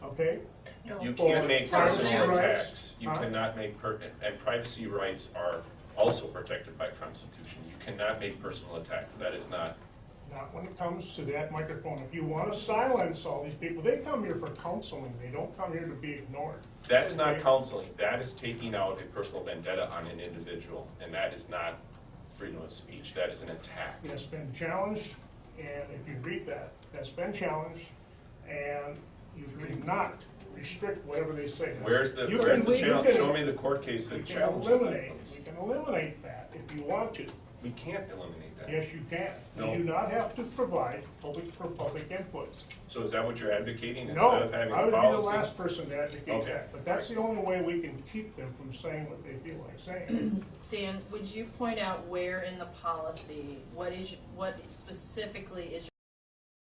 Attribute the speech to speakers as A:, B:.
A: okay?
B: You
A: Or
B: can't make
A: privacy
B: personal
A: rights.
B: attacks, you
A: Huh?
B: cannot make per, and privacy rights are also protected by constitution. You cannot make personal attacks, that is not,
A: Not when it comes to that microphone. If you wanna silence all these people, they come here for counseling, they don't come here to be ignored.
B: that is not
A: Okay?
B: counseling, that is taking out a personal vendetta on an individual, and that is not freedom of speech, that is an attack.
A: it has been challenged, and if you read that, that's been challenged, and you cannot restrict whatever they say.
B: Where's the,
A: You
B: where's
A: can-
B: the
A: you
B: challenge,
A: can-
B: show me the court case
A: We
B: that
A: can
B: challenges
A: eliminate,
B: that.
A: we can eliminate that if you want to.
B: We can't eliminate that.
A: Yes, you can.
B: No.
A: You do not have to provide public, for public input.
B: So is that what you're advocating,
A: No,
B: instead of having
A: I
B: a
A: would be the
B: policy?
A: last person to advocate
B: Okay.
A: that, but that's the only way we can keep them from saying what they feel like saying.
C: Dan, would you point out where in the policy, what is, what specifically is